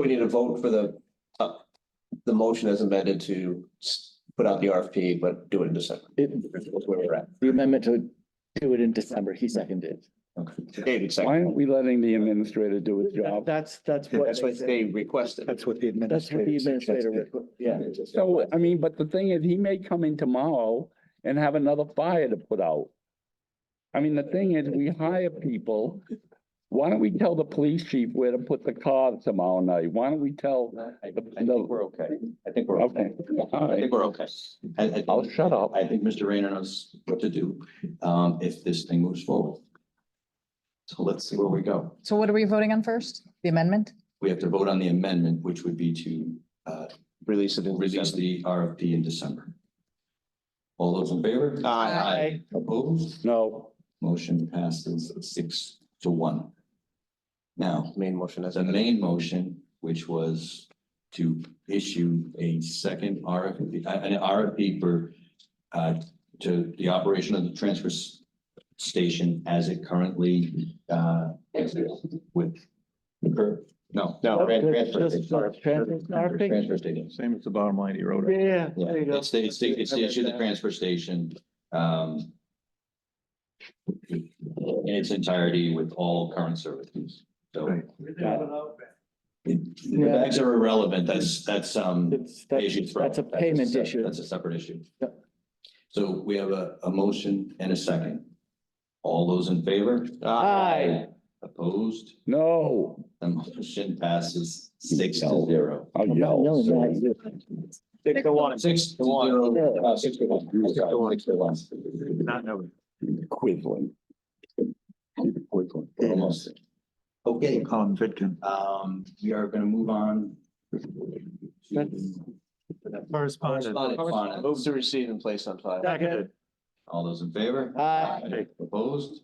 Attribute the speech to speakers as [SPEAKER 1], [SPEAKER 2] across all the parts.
[SPEAKER 1] We need a vote for the, uh, the motion as amended to s- put out the RFP, but do it in December.
[SPEAKER 2] It,
[SPEAKER 1] That's where we're at.
[SPEAKER 2] the amendment to do it in December, he seconded.
[SPEAKER 1] David second.
[SPEAKER 3] Why aren't we letting the administrator do his job?
[SPEAKER 2] That's, that's what.
[SPEAKER 1] That's what they requested.
[SPEAKER 4] That's what the
[SPEAKER 2] That's what
[SPEAKER 4] administrator.
[SPEAKER 2] the administrator,
[SPEAKER 4] suggested.
[SPEAKER 2] would- yeah.
[SPEAKER 3] So, I mean, but the thing is, he may come in tomorrow and have another fire to put out. I mean, the thing is, we hire people. Why don't we tell the police chief where to put the car tomorrow night? Why don't we tell?
[SPEAKER 1] I
[SPEAKER 3] think
[SPEAKER 1] we're okay. I think we're
[SPEAKER 3] Okay, all
[SPEAKER 5] I
[SPEAKER 3] right,
[SPEAKER 5] think we're okay. I, I,
[SPEAKER 3] I'll shut up.
[SPEAKER 5] I think Mr. Rayner knows what to do, um, if this thing moves forward. So let's see where we go.
[SPEAKER 6] So what are we voting on first? The amendment?
[SPEAKER 5] We have to vote on the amendment, which would be to, uh,
[SPEAKER 1] Release it in
[SPEAKER 5] release
[SPEAKER 1] December.
[SPEAKER 5] the RFP in December. All those in favor?
[SPEAKER 1] Aye.
[SPEAKER 6] Aye.
[SPEAKER 5] Opposed?
[SPEAKER 3] No,
[SPEAKER 5] Motion passes six to one. Now,
[SPEAKER 1] Main motion as
[SPEAKER 5] the
[SPEAKER 1] amended.
[SPEAKER 5] main motion, which was to issue a second RFP, uh, an RFP for uh, to the operation of the transfer s- station as it currently uh, exists with or- no.
[SPEAKER 1] No,
[SPEAKER 5] tran- transfer
[SPEAKER 2] Just- just
[SPEAKER 5] station.
[SPEAKER 2] transfer station.
[SPEAKER 5] Transfer station.
[SPEAKER 4] Same as the bottom line he wrote.
[SPEAKER 2] Yeah,
[SPEAKER 5] Yeah, it's the, it's the, it's the issue of the transfer station, um. In its entirety with all current services, so.
[SPEAKER 4] Right.
[SPEAKER 5] The bags are irrelevant, that's, that's, um.
[SPEAKER 2] It's,
[SPEAKER 5] issue
[SPEAKER 2] that's,
[SPEAKER 5] for-
[SPEAKER 2] that's a payment
[SPEAKER 5] sep-
[SPEAKER 2] issue.
[SPEAKER 5] That's a separate issue.
[SPEAKER 2] Yep.
[SPEAKER 5] So we have a, a motion and a second. All those in favor?
[SPEAKER 2] Aye.
[SPEAKER 5] Opposed?
[SPEAKER 3] no,
[SPEAKER 5] The motion passes six to zero.
[SPEAKER 3] I'll
[SPEAKER 2] I'm not
[SPEAKER 3] yell.
[SPEAKER 2] yelling at you.
[SPEAKER 5] Six to one. Uh, six to one. I'm sorry, six to one.
[SPEAKER 4] Not knowing.
[SPEAKER 3] Quisling. Quisling.
[SPEAKER 5] Almost. Okay,
[SPEAKER 4] Colin Fitkin.
[SPEAKER 5] um, we are gonna move on. to-
[SPEAKER 4] Correspondent.
[SPEAKER 5] Correspondent.
[SPEAKER 1] Move to receive and place on file.
[SPEAKER 4] Seconded.
[SPEAKER 5] All those in favor?
[SPEAKER 2] Aye.
[SPEAKER 5] Opposed?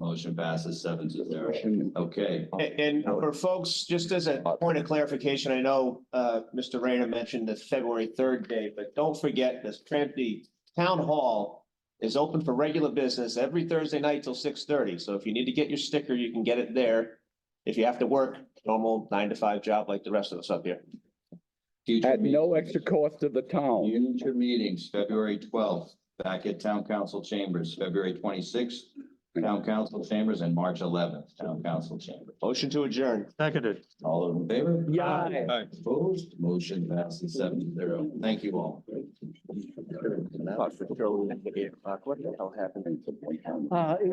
[SPEAKER 5] Motion passes seven to zero. Okay.
[SPEAKER 1] A- And for folks, just as a point of clarification, I know uh Mr. Rayner mentioned the February third date, but don't forget this tran- the town hall is open for regular business every Thursday night till six thirty. So if you need to get your sticker, you can get it there. If you have to work, normal nine to five job like the rest of us up here.
[SPEAKER 5] Future
[SPEAKER 3] At no
[SPEAKER 5] meetings.
[SPEAKER 3] extra cost to the town.
[SPEAKER 5] Future meetings, February twelfth, back at Town Council Chambers, February twenty-sixth, Town Council Chambers, and March eleventh, Town Council Chambers.
[SPEAKER 1] Motion to adjourn.
[SPEAKER 4] Seconded.
[SPEAKER 5] All those in favor?
[SPEAKER 3] Yeah.
[SPEAKER 5] Opposed, motion passes seven to zero. Thank you all.
[SPEAKER 1] What the hell happened?
[SPEAKER 2] Uh,